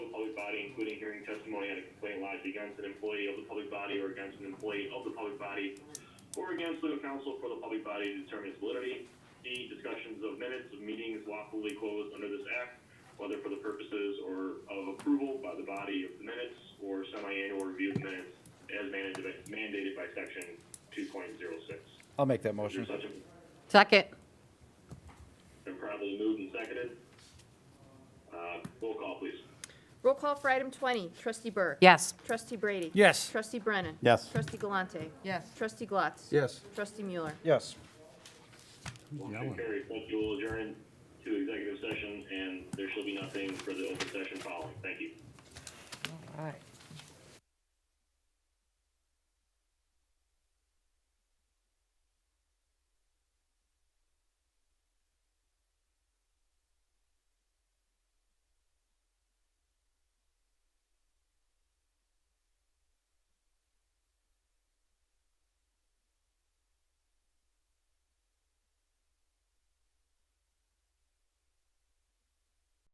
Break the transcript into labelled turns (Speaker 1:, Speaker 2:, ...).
Speaker 1: including hearing testimony on a complaint lodged against an employee of the public body or against an employee of the public body or against legal counsel for the public body to determine its validity. D, discussions of minutes of meetings lawfully closed under this act, whether for the purposes or of approval by the body of the minutes or semi-annual review of the minutes as mandated by- mandated by section two point zero six.
Speaker 2: I'll make that
Speaker 1: Is there
Speaker 2: motion.
Speaker 1: such a
Speaker 3: Second.
Speaker 1: Been properly moved and seconded. Uh, roll call, please.
Speaker 4: Roll call for item 20, trustee Burke.
Speaker 3: Yes.
Speaker 4: Trustee Brady.
Speaker 2: Yes.
Speaker 4: Trustee Brennan.
Speaker 2: Yes.
Speaker 4: Trustee Galante.
Speaker 3: Yes.
Speaker 4: Trustee Glatz.
Speaker 5: Yes.
Speaker 4: Trustee Mueller.
Speaker 2: Yes.
Speaker 1: Motion carries. Thank you. We'll adjourn to executive session, and there shall be nothing for the open session following. Thank you.
Speaker 3: All right.